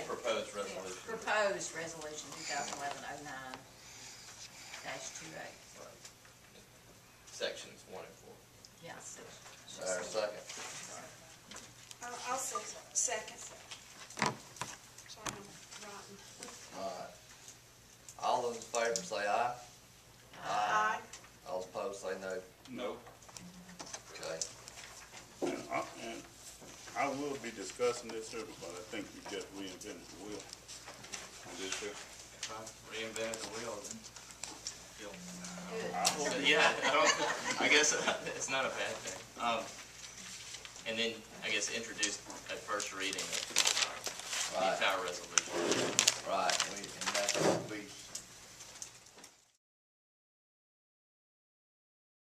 Proposed resolution. Proposed resolution two thousand eleven oh nine dash two eight, Sections one and four. yes. Is there a second? I'll, I'll say second. Sorry, I'm rotten. All right. All those in favor say aye. Aye. All opposed say no. No. Okay. And I, and I will be discussing this here, but I think you just reinvented the wheel on this here. Reinvented the wheel. then. Good. I hope, But Yeah, I don't, I guess it's not a bad thing. Um, and then, I guess, introduce at first reading of the Right, entire resolution. right. We, and that's gonna be